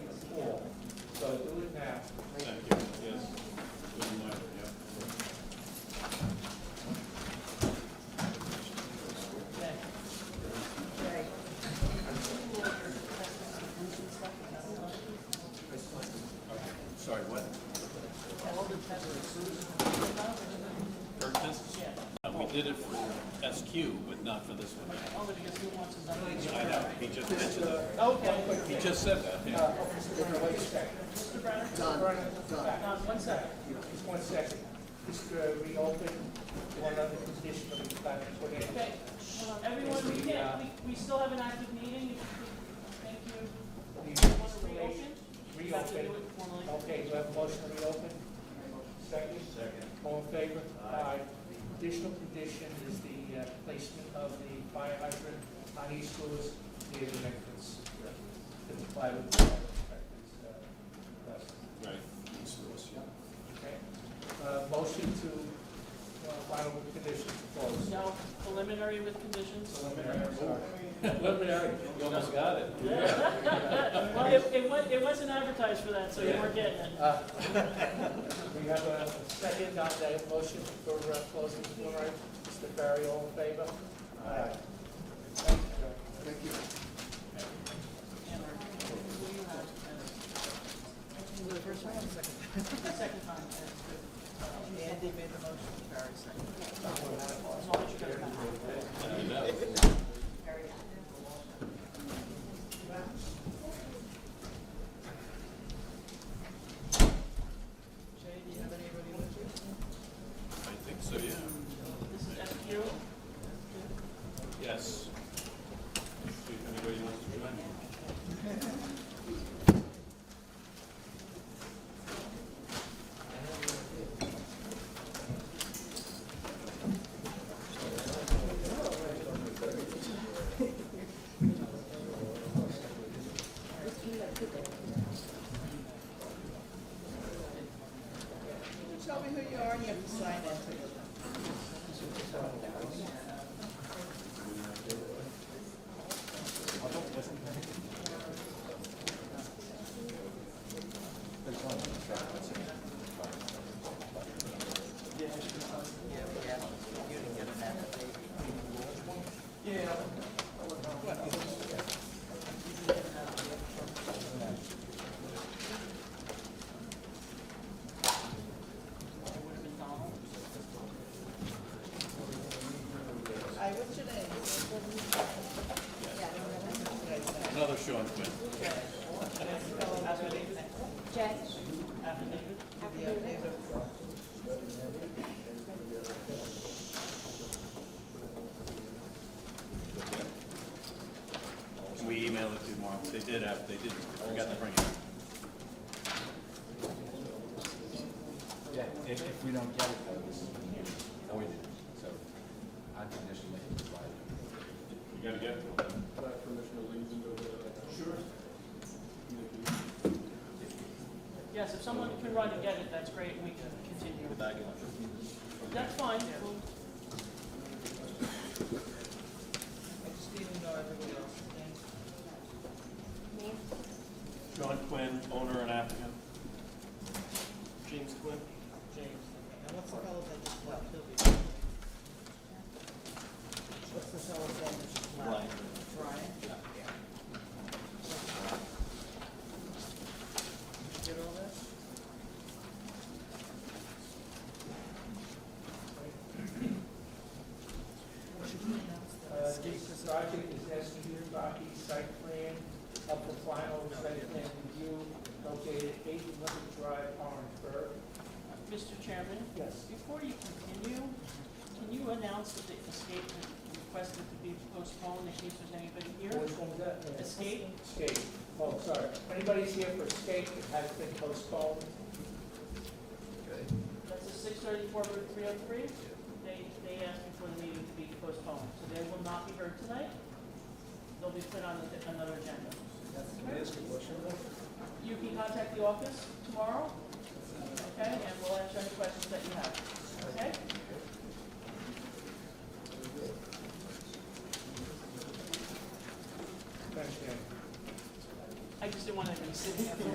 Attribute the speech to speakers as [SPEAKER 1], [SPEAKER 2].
[SPEAKER 1] Uh, did it for SQ, but not for this one. Oh, but he just I know, he just mentioned that. Okay. He just said that, yeah.
[SPEAKER 2] Don, one second, just one second. Just uh, reopen one other position that we've got to put in.
[SPEAKER 3] Okay, hold on. everyone, we can't, we, we still have an active meeting, if you could- thank you.
[SPEAKER 2] We
[SPEAKER 3] Want to reopen? You have to do
[SPEAKER 2] Reopen.
[SPEAKER 3] it formally.
[SPEAKER 2] Okay, do I have a motion to reopen? Second? Second. All in favor? Aye. Additional condition is the uh, placement of the fire hydrant on East Lewis near the entrance. To comply with the fire inspector's uh, request.
[SPEAKER 1] Right. East Louis, yeah.
[SPEAKER 2] Okay? Uh, Motion to, uh, final with conditions closed.
[SPEAKER 3] No, preliminary with conditions.
[SPEAKER 2] Preliminary, I'm sorry. Preliminary.
[SPEAKER 1] You almost got it.
[SPEAKER 3] Well, it, it wa, it wasn't advertised for that, so you
[SPEAKER 2] Yeah.
[SPEAKER 3] weren't getting it.
[SPEAKER 2] Uh, We have a second on that motion for uh, closing the floor, right? Mr. Ferry, all in favor? Aye.
[SPEAKER 4] Thank you.
[SPEAKER 3] Second time, that's good. Andy made the motion, Barry seconded. Jay, do you have anybody with you?
[SPEAKER 1] I think so, yeah.
[SPEAKER 3] This is FQ.
[SPEAKER 1] Yes. See if anybody wants to join.
[SPEAKER 5] Tell me who you are and you have to sign in. I, what's your name?
[SPEAKER 1] Another Sean Quinn.
[SPEAKER 6] Jay?
[SPEAKER 3] Affidavit.
[SPEAKER 1] Can we email it to Mark? They did have, they did, forgot to bring it.
[SPEAKER 7] Yeah, if, if we don't get it, then it's, no, we didn't, so unconditionally provided.
[SPEAKER 1] You gotta get it.
[SPEAKER 3] Yes, if someone can run and get it, that's great, we can continue. That's fine, we'll-
[SPEAKER 5] I just need to know everybody else's name.
[SPEAKER 6] Me?
[SPEAKER 1] Sean Quinn, owner and applicant.
[SPEAKER 2] James Quinn.
[SPEAKER 5] James. And what's the fellow's name that's left? He'll be. What's the fellow's name that's just left?
[SPEAKER 1] Brian.
[SPEAKER 5] Brian? Yeah. Did you get all that?
[SPEAKER 2] Uh, This project is executed by the site plan of the final site plan review located at eight Liberty Drive, Orangeburg.
[SPEAKER 3] Mr. Chairman,
[SPEAKER 2] Yes.
[SPEAKER 3] before you continue, can you announce that the statement requested to be postponed in case there's anybody here?
[SPEAKER 2] Which one's that? Yeah.
[SPEAKER 3] Escape?
[SPEAKER 2] Escape. Oh, sorry. Anybody's here for escape that has been postponed?
[SPEAKER 3] That's a six thirty-four Route three oh three. They, they asked me for the meeting to be postponed, so they will not be heard tonight. They'll be put on the- another agenda. You can contact the office tomorrow, okay, and we'll answer any questions that you have, okay?
[SPEAKER 2] Thank you.
[SPEAKER 3] I just didn't want to be sitting here for